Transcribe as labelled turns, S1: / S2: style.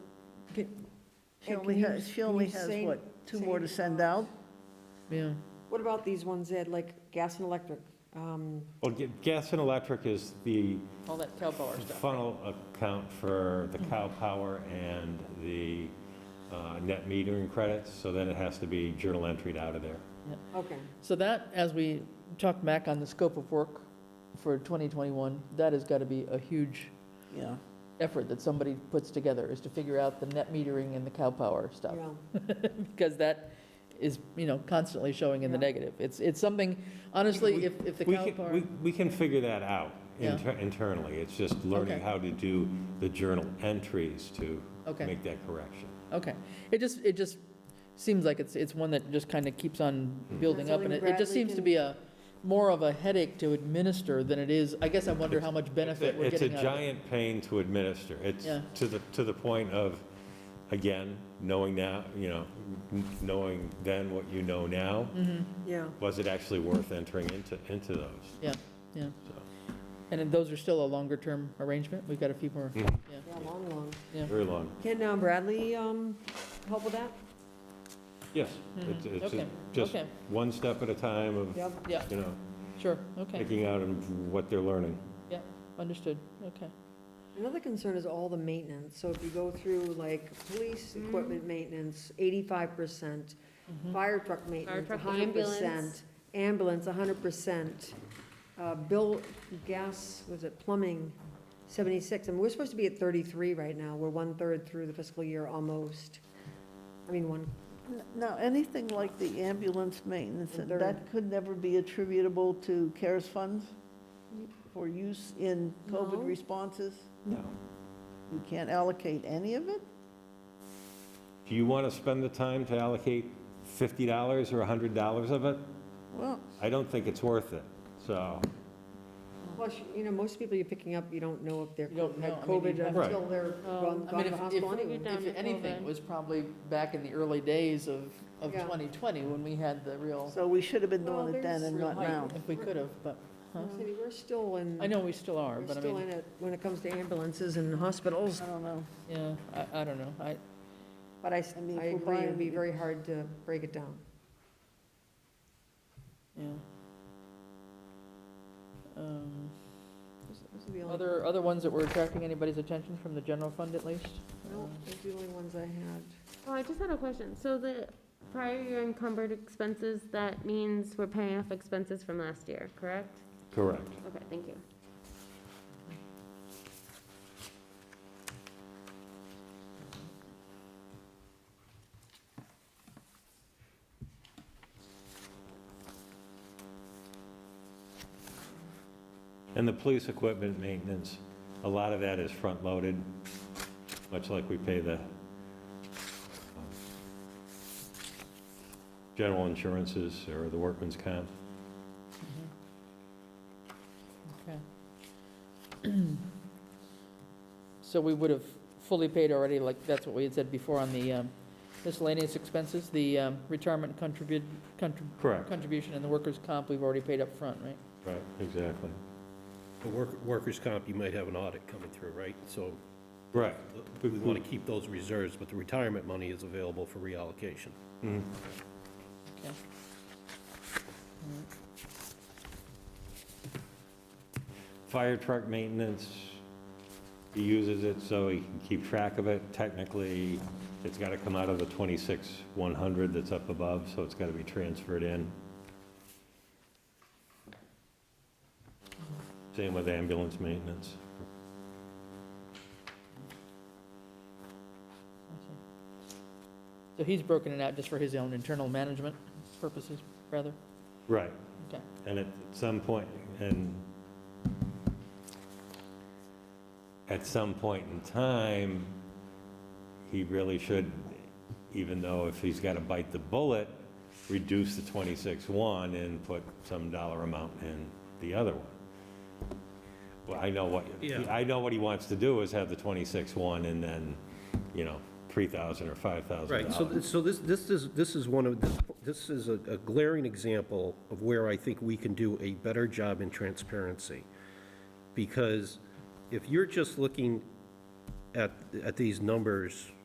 S1: Can-
S2: She
S1: Ed,
S2: only
S1: can you-
S2: has, she
S1: can you
S2: only has,
S1: say-
S2: what, two
S1: say-
S2: more to send out?
S3: Yeah.
S1: What about these ones that, like, gas and electric? Um,
S4: Well, ga- gas and electric is the
S3: All that cow power stuff.
S4: funnel account for
S3: Mm.
S4: the cow power and the uh, net metering credits, so then it has to be journal entered out of there.
S1: Okay,
S3: So that, as we talk back on the scope of work for 2021, that has got to be a huge
S2: Yeah.
S3: effort that somebody puts together, is to figure out the net metering and the cow power stuff.
S1: yeah,
S3: Because that is, you know, constantly showing in the
S1: Yeah.
S3: negative. It's, it's something, honestly, if, if the
S4: We
S3: cow
S4: can,
S3: power.
S4: we- we can figure that out
S3: Yeah.
S4: inter- internally. It's just learning
S3: Okay.
S4: how to do the journal entries to
S3: Okay.
S4: make that correction.
S3: Okay, it just, it just seems like it's, it's one that just kind of keeps on
S4: Hmm.
S3: building up, and it it just
S1: Something
S3: seems to
S1: Bradley
S3: be a, more of a headache to administer than it is, I guess I wonder how much benefit we're
S4: It's a
S3: getting out of it.
S4: giant pain to administer. It's
S3: Yeah.
S4: to the, to the point of, again, knowing now, you know, n- knowing then what you know now,
S1: yeah.
S4: was it actually worth entering into, into those?
S3: Yeah, yeah,
S4: So,
S3: and then those are still a longer-term arrangement, we've got a few more,
S4: Mhm.
S3: yeah.
S1: Yeah, long, long.
S4: Very long.
S1: Can uh, Bradley um, help with that?
S4: Yes,
S3: Mhm.
S4: it's, it's
S3: Okay,
S4: just
S3: okay.
S4: one step at a time of,
S1: Yep.
S3: Yeah,
S4: you know,
S3: sure, okay,
S4: picking out and what they're learning.
S3: understood, okay.
S1: Another concern is all the maintenance. So if you go through like police equipment maintenance, eighty-five percent,
S3: Mhm.
S1: fire truck maintenance,
S5: truck,
S1: hundred percent,
S5: ambulance.
S1: ambulance, hundred percent, Uh, bill, gas, was it plumbing, seventy-six? And we're supposed to be at thirty-three right now. We're one-third through the fiscal year almost. I mean, one,
S2: N- Now, anything like the ambulance maintenance,
S1: And
S2: that could never be attributable to CARES funds for use in
S1: No.
S2: COVID responses?
S4: No.
S2: You can't allocate any of it?
S4: Do you want to spend the time to allocate fifty dollars or a hundred dollars of it?
S2: Well,
S4: I don't think it's worth it, so.
S1: plus, you know, most people you're picking up, you don't know if they're
S3: You don't
S1: had
S3: know. I mean, you
S1: COVID
S3: have
S4: to-
S1: until they're gone
S3: I
S5: Um,
S1: gone
S3: mean,
S1: to the
S3: if-
S1: hospital
S3: if-
S1: anyway.
S5: Down
S3: If
S5: to
S3: anything, it
S5: COVID.
S3: was probably back in the early days of, of
S1: Yeah.
S3: 2020, when we had the real,
S2: so we should have been
S1: Well,
S2: doing it then
S1: there's
S2: and
S3: real
S2: not now.
S3: height, if we could have, but, huh?
S1: Cindy, We're still in.
S3: I know we still are,
S1: We're
S3: but I
S1: still
S3: mean,
S1: in it when it comes to ambulances and hospitals,
S2: I don't know.
S3: yeah, I, I don't know, I,
S1: but I, s-
S2: I mean,
S1: I
S2: if we're
S1: agree, it'd be
S2: buying-
S1: very hard to break it down.
S3: yeah. Um,
S1: Those- those are the only-
S3: Other, other ones that were attracting anybody's attention from the general fund at least?
S1: No, those are the only ones I had.
S5: Oh, I just had a question. So the prior year encumbered expenses, that means we're paying off expenses from last year, correct?
S4: Correct.
S5: Okay, thank you.
S4: And the police equipment maintenance, a lot of that is front-loaded, much like we pay the um, general insurances or the workman's comp.
S3: Okay. So we would have fully paid already, like, that's what we had said before on the um, miscellaneous expenses, the um, retirement contribute, contrib-
S4: Correct.
S3: contribution and the workers' comp, we've already paid up front, right?
S4: Right, exactly.
S6: The work- workers' comp, you might have an audit coming through, right? So
S4: Right.
S6: we want to keep those reserves, but the retirement money is available for reallocation.
S4: Mhm.
S3: Okay. All right.
S4: Fire truck maintenance, he uses it so he can keep track of it. Technically, it's got to come out of the 26-100 that's up above, so it's got to be transferred in. Same with ambulance maintenance.
S3: Okay. So he's broken it out just for his own internal management purposes, rather?
S4: Right.
S3: Okay.
S4: And at some point, and at some point in time, he really should, even though if he's got to bite the bullet, reduce the 26-1 and put some dollar amount in the other one. Well, I know what,
S6: Yeah.
S4: I know what he wants to do is have the 26-1 and then, you know, 3,000 or 5,000
S6: Right, so, th- so this, this is, this is one of, this- this is a a glaring example of where I think we can do a better job in transparency. Because if you're just looking at, at these numbers